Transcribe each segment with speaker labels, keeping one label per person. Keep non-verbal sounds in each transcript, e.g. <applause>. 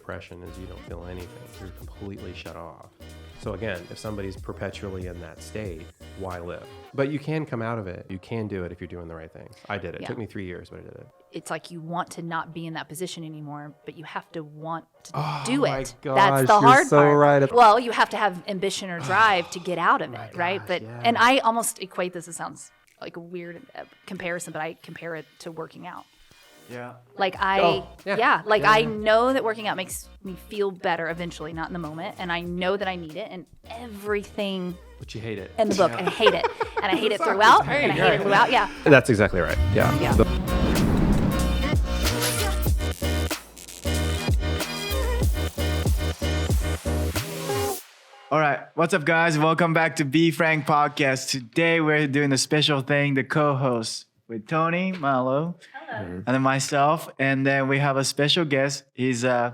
Speaker 1: depression is you don't feel anything. You're completely shut off. So again, if somebody's perpetually in that state, why live? But you can come out of it. You can do it if you're doing the right things. I did it. It
Speaker 2: Yeah.
Speaker 1: took me three years, but I did it.
Speaker 2: It's like you want to not be in that position anymore, but you have to want to
Speaker 1: Oh
Speaker 2: do it.
Speaker 1: my
Speaker 2: That's the
Speaker 1: gosh, you're
Speaker 2: hard
Speaker 1: so
Speaker 2: part.
Speaker 1: right. Oh
Speaker 2: Well, you have to have ambition
Speaker 1: <sighs>
Speaker 2: or drive to get out of it, right? But and I almost equate this. It sounds like a weird uh, comparison, but I compare it to working out.
Speaker 3: Yeah.
Speaker 2: Like I,
Speaker 1: Oh, yeah.
Speaker 2: yeah. like I know that working out makes me feel better eventually, not in the moment, and I know that I need it, and everything
Speaker 1: But you hate it.
Speaker 2: in the book, and I hate it, and I hate it throughout, and I hate it throughout. Yeah,
Speaker 1: That's exactly right. Yeah.
Speaker 2: Yeah.
Speaker 1: The-
Speaker 3: All right. What's up, guys? Welcome back to Be Frank Podcast. Today we're doing a special thing, the co-host with Tony Malo and then myself. And then we have a special guest. He's uh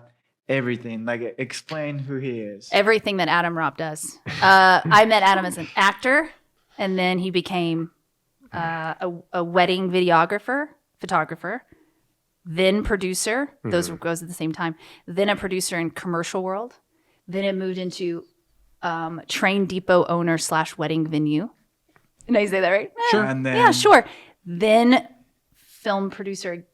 Speaker 3: everything. Like explain who he
Speaker 2: <laughs>
Speaker 3: is.
Speaker 2: everything that Adam Rob does. Uh, I met Adam as an actor, and then he became uh, a, a wedding videographer, photographer, then producer. Those
Speaker 1: Mm-hmm.
Speaker 2: goes at the same time. Then a producer in commercial world. Then it moved into um, train depot owner slash wedding venue. Did I say that right? Sure.
Speaker 3: And then
Speaker 2: yeah, sure. Then film producer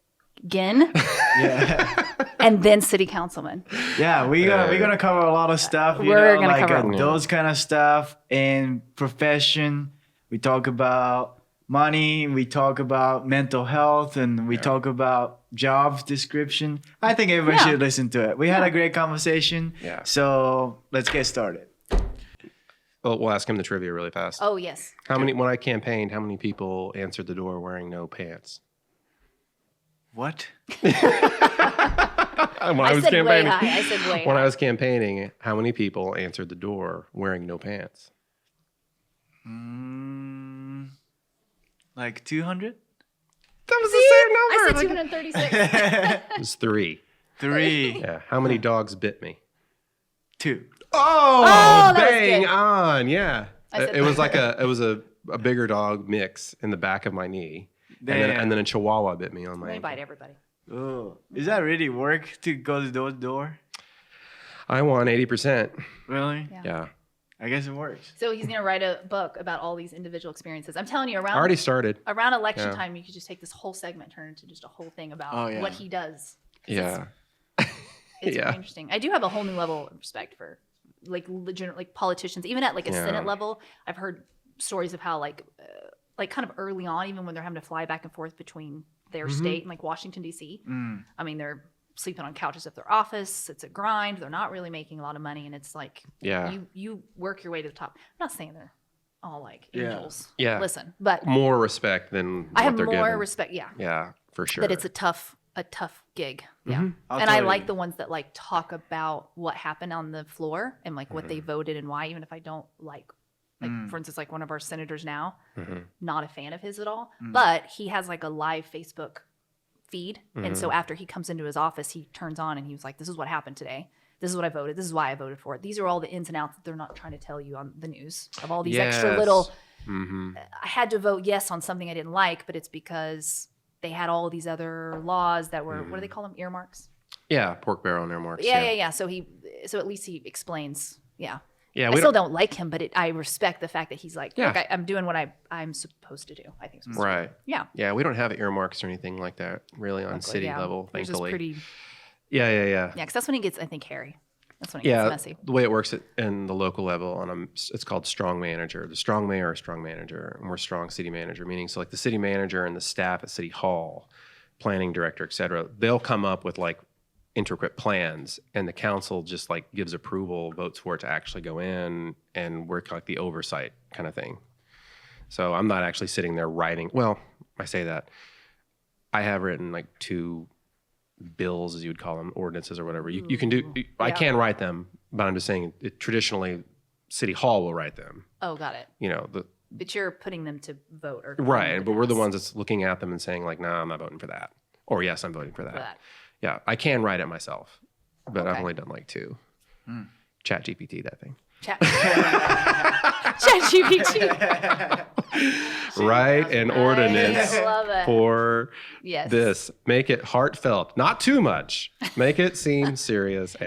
Speaker 2: again,
Speaker 1: <laughs>
Speaker 3: Yeah.
Speaker 2: and then city councilman.
Speaker 3: Yeah, we gonna
Speaker 1: Uh,
Speaker 3: we gonna cover a lot of stuff. You
Speaker 2: We're
Speaker 3: know,
Speaker 2: gonna
Speaker 3: like
Speaker 2: cover-
Speaker 3: uh, those kind of stuff in profession. We talk about money. We talk about mental health, and we talk about job description. I think everyone
Speaker 2: Yeah.
Speaker 3: should listen to it. We had a great conversation.
Speaker 1: Yeah.
Speaker 3: So let's get started.
Speaker 1: Well, we'll ask him the trivia really fast.
Speaker 2: Oh yes,
Speaker 1: How many when I campaigned, how many people answered the door wearing no pants?
Speaker 3: What?
Speaker 1: When
Speaker 2: I,
Speaker 1: was
Speaker 2: said way
Speaker 1: campaigning-
Speaker 2: high. I said way
Speaker 1: When
Speaker 2: high.
Speaker 1: I was campaigning, how many people answered the door wearing no pants?
Speaker 3: Mm, like two hundred?
Speaker 1: That was the
Speaker 2: I said 236.
Speaker 1: <laughs> It was three.
Speaker 2: <laughs>
Speaker 3: Three,
Speaker 1: Yeah. How many dogs bit me?
Speaker 3: two.
Speaker 1: Oh,
Speaker 2: that was
Speaker 1: bang
Speaker 2: good.
Speaker 1: on. Yeah.
Speaker 2: I
Speaker 1: It,
Speaker 2: said
Speaker 1: it was like a it was a, a bigger dog mix in the back of my knee. And then,
Speaker 3: Damn.
Speaker 1: and then a chihuahua bit me on my
Speaker 2: They
Speaker 1: ankle.
Speaker 2: bite everybody.
Speaker 3: Oh, is that really work to go to door door?
Speaker 1: I won 80%.
Speaker 3: Really?
Speaker 2: Yeah.
Speaker 1: Yeah.
Speaker 3: I guess it works.
Speaker 2: So he's gonna write a book about all these individual experiences. I'm telling you,
Speaker 1: I
Speaker 2: around
Speaker 1: already started.
Speaker 2: around election
Speaker 1: Yeah.
Speaker 2: time, you could just take this whole segment, turn it into just a whole thing about
Speaker 3: Oh, yeah.
Speaker 2: what he does.
Speaker 1: Yeah.
Speaker 2: It's
Speaker 1: Yeah.
Speaker 2: very interesting. I do have a whole new level of respect for like legit, like politicians, even at like a
Speaker 1: Yeah.
Speaker 2: Senate level. I've heard stories of how like uh, like kind of early on, even when they're having to fly back and forth between their
Speaker 1: Mm-hmm.
Speaker 2: state and like Washington D.C.
Speaker 3: Mm.
Speaker 2: I mean, they're sleeping on couches at their office. It's a grind. They're not really making a lot of money, and it's like
Speaker 1: Yeah.
Speaker 2: you you work your way to the top. I'm not saying they're all like
Speaker 3: Yeah.
Speaker 2: angels.
Speaker 1: Yeah.
Speaker 2: Listen, but
Speaker 1: More respect than
Speaker 2: I
Speaker 1: what
Speaker 2: have
Speaker 1: they're
Speaker 2: more
Speaker 1: given.
Speaker 2: respect. Yeah,
Speaker 1: yeah, for sure.
Speaker 2: that it's a tough a tough gig. Yeah,
Speaker 3: I'll
Speaker 2: and I
Speaker 3: tell
Speaker 2: like
Speaker 3: you.
Speaker 2: the ones that like talk about what happened on the floor and like what they voted and why, even if I don't like. Like
Speaker 3: Mm.
Speaker 2: for instance, like one of our senators now,
Speaker 1: Mhm.
Speaker 2: not a fan of his at all,
Speaker 3: Mm.
Speaker 2: but he has like a live Facebook feed, and so
Speaker 1: Mhm.
Speaker 2: after he comes into his office, he turns on and he was like, "This is what happened today. This is what I voted. This is why I voted for it. These are all the ins and outs that they're not trying to tell you on the news of all these extra
Speaker 1: Yes.
Speaker 2: little
Speaker 1: Mhm.
Speaker 2: I had to vote yes on something I didn't like, but it's because they had all these other laws that were
Speaker 1: Mm.
Speaker 2: what do they call them earmarks?
Speaker 1: Yeah, pork barrel and earmarks.
Speaker 2: Yeah, yeah, yeah. So he, so at least he explains. Yeah,
Speaker 1: Yeah,
Speaker 2: I
Speaker 1: we
Speaker 2: still
Speaker 1: don't,
Speaker 2: don't, like him, but it, I respect the fact that he's like,
Speaker 1: Yeah.
Speaker 2: okay, I'm doing what I I'm supposed to do. I think. Supposed
Speaker 1: right.
Speaker 2: To. Yeah.
Speaker 1: Yeah, we don't have earmarks or anything like that really on
Speaker 2: Luckily,
Speaker 1: city
Speaker 2: yeah.
Speaker 1: level,
Speaker 2: Which is
Speaker 1: thankfully.
Speaker 2: pretty. Yeah,
Speaker 1: yeah, yeah, yeah.
Speaker 2: 'cause that's when he gets, I think, hairy. That's when it
Speaker 1: Yeah,
Speaker 2: gets messy.
Speaker 1: the way it works at, in the local level, on a, it's called strong manager. The strong mayor is strong manager, and we're strong city manager. Meaning, so like the city manager and the staff at city hall, planning director, et cetera, they'll come up with like intricate plans, and the council just like gives approval, votes for it to actually go in, and we're like the oversight kind of thing. So I'm not actually sitting there writing. Well, I say that I have written like two bills, as you would call them, ordinances or whatever. You, you can
Speaker 2: Mm.
Speaker 1: do. I
Speaker 2: Yeah.
Speaker 1: can write them, but I'm just saying it, traditionally, city hall will write them.
Speaker 2: Oh, got it.
Speaker 1: You know the
Speaker 2: But you're putting them to vote or
Speaker 1: right, but we're the
Speaker 2: pass
Speaker 1: ones that's looking at them and saying like, "Nah, I'm not voting for that," or "Yes, I'm voting for that." <laughs>
Speaker 2: for that.
Speaker 1: Yeah, I can write it myself, but I've
Speaker 2: Okay.
Speaker 1: only done like two.
Speaker 2: <laughs>
Speaker 1: Chat GPT, that thing.
Speaker 3: <laughs>
Speaker 2: Chat. Chat GPT.
Speaker 1: Write an
Speaker 2: <laughs>
Speaker 1: ordinance
Speaker 2: I love it.
Speaker 1: for
Speaker 2: yes. <laughs>
Speaker 1: this. Make it heartfelt, not too much. Make it seem serious